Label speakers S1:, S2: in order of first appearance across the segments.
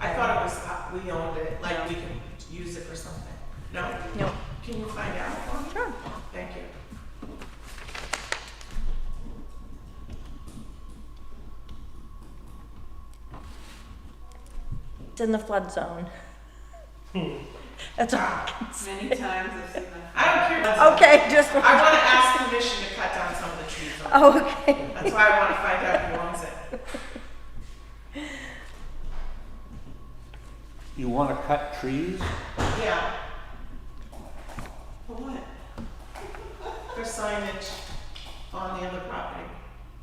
S1: uh, we owned it, like we can use it for something? No?
S2: No.
S1: Can you find out for me?
S2: Sure.
S1: Thank you.
S2: It's in the flood zone.
S1: Hmm.
S2: That's all. I can say.
S3: Many times I've seen that.
S1: I don't care.
S2: Okay, just,
S1: I wanna ask permission to cut down some of the trees on
S2: oh, okay.
S1: That's why I want to find out who owns it.
S4: You want to cut trees?
S1: Yeah,
S3: For what?
S1: for signage on the other property,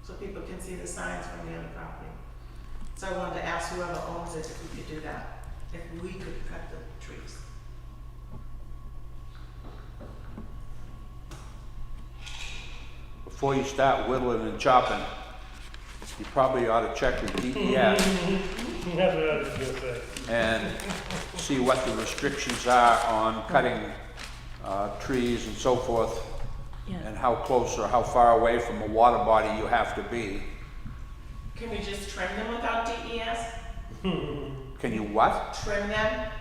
S1: so people can see the signs from the other property. So I wanted to ask whoever owns it if we could do that, if we could cut the trees.
S4: Before you start whittling and chopping, you probably ought to check with DES
S5: That's what I was gonna say.
S4: and see what the restrictions are on cutting uh, trees and so forth,
S2: Yeah.
S4: and how close or how far away from a water body you have to be.
S1: Can we just trim them without DES?
S4: Can you what?
S1: Trim them?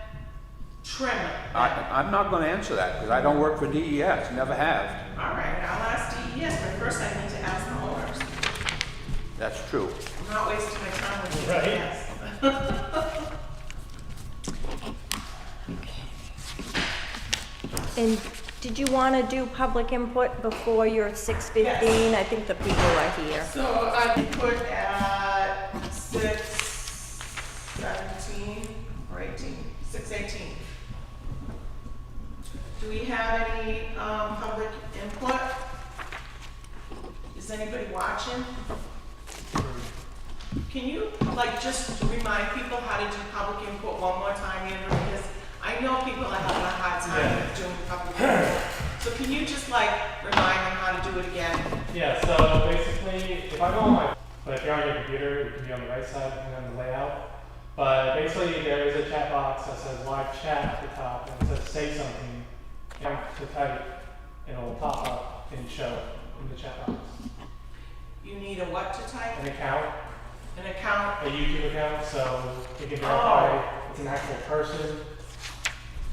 S1: Trim them?
S4: I,
S1: All
S4: I'm not going to answer that because I don't work for DES, never have.
S1: right, I'll ask DES, but first I need to ask the owners.
S4: That's true.
S1: I'm not wasting my time with E
S5: Right.
S1: DES.
S2: And did you want to do public input before your six fifteen? I think the people are here.
S1: So I put at six seventeen or eighteen, six eighteen. Do we have any, um, public input? Is anybody watching? Can you, like, just remind people how to do public input one more time, Andrew, because I know people are having a hard time doing public input. So can you just like remind them how to do it again?
S6: Yeah, so basically, if I go on my, but if you're on your computer, it can be on the right side and on the layout. But basically, there is a chat box that says live chat at the top, and it says say something. You have to type, and it'll pop up and show in the chat box.
S1: You need a what to type?
S6: An account,
S1: An account?
S6: a YouTube account, so you can
S1: Oh.
S6: verify it's an actual person.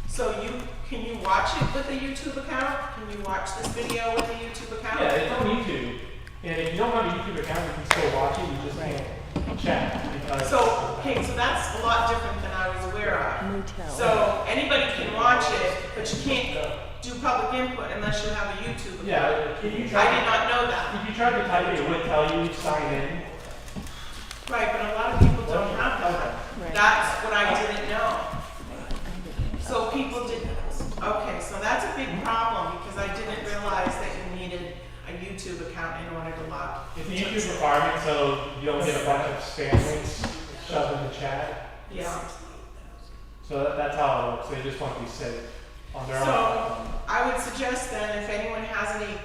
S1: So you, can you watch it with a YouTube account? Can you watch this video with a YouTube account?
S6: Yeah, it's on YouTube. And if you don't have a YouTube account, you can still watch it. You just can't chat because.
S1: So, okay, so that's a lot different than I was aware of.
S2: Me too.
S1: So anybody can watch it, but you can't do public input unless you have a YouTube account.
S6: yeah, if you
S1: I
S6: try
S1: did not know that.
S6: If you tried to type it, it would tell you sign in.
S1: Right, but a lot of people don't have that.
S2: Right.
S1: That's what I didn't know. So people didn't, okay, so that's a big problem because I didn't realize that you needed a YouTube account in order to log.
S6: It's a YouTube requirement, so you don't get a bunch of spam links shoved in the chat.
S1: Yeah.
S6: So that, that's how it works. They just want to be safe on their
S1: So-
S6: own.
S1: I would suggest then, if anyone has any c-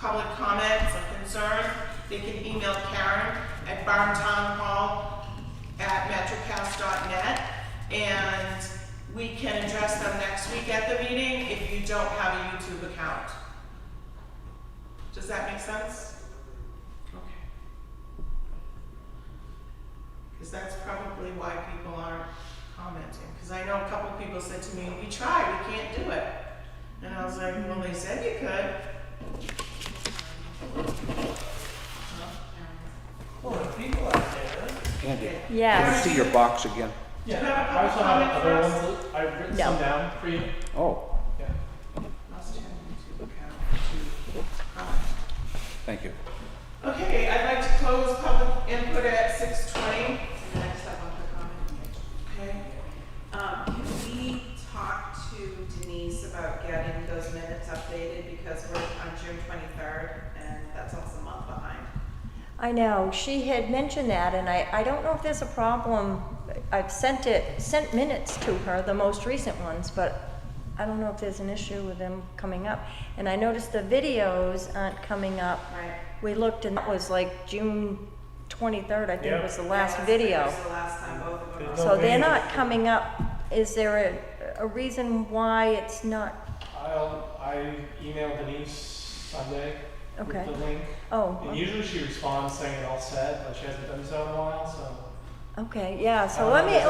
S1: public comments or concerns, they can email Karen at barntownhall@metrocast.net, and we can address them next week at the meeting if you don't have a YouTube account. Does that make sense? Okay. Because that's probably why people aren't commenting, because I know a couple people said to me, we tried, we can't do it. And I was like, well, they said you could.
S3: Well, the people out there.
S4: Andy, let me
S2: Yes.
S4: see your box again.
S1: Do you have a
S6: I also
S1: comment
S6: have other
S1: for us?
S6: ones. that I've written
S2: No.
S6: some down for you.
S4: Oh,
S6: Yeah.
S1: Must have YouTube account to comment.
S4: thank you.
S1: Okay, I'd like to close public input at six twenty.
S3: And I just have one quick comment.
S1: Okay.
S3: Um, can we talk to Denise about getting those minutes updated because we're on June twenty-third and that's almost a month behind.
S2: I know, she had mentioned that, and I, I don't know if there's a problem. I've sent it, sent minutes to her, the most recent ones, but I don't know if there's an issue with them coming up. And I noticed the videos aren't coming up.
S3: Right.
S2: We looked, and that was like June twenty-third, I think
S5: Yep.
S2: was the last
S3: That was- It
S2: video.
S3: was the last time both of them were on.
S5: There's
S2: So they're
S5: videos.
S2: not coming up. Is there a, a reason why it's not?
S6: I'll, I emailed Denise Sunday
S2: Okay.
S6: with the link. And
S2: Oh,
S6: usually she responds saying it all set, but she hasn't done so in a while, so.
S2: okay, yeah, so let me,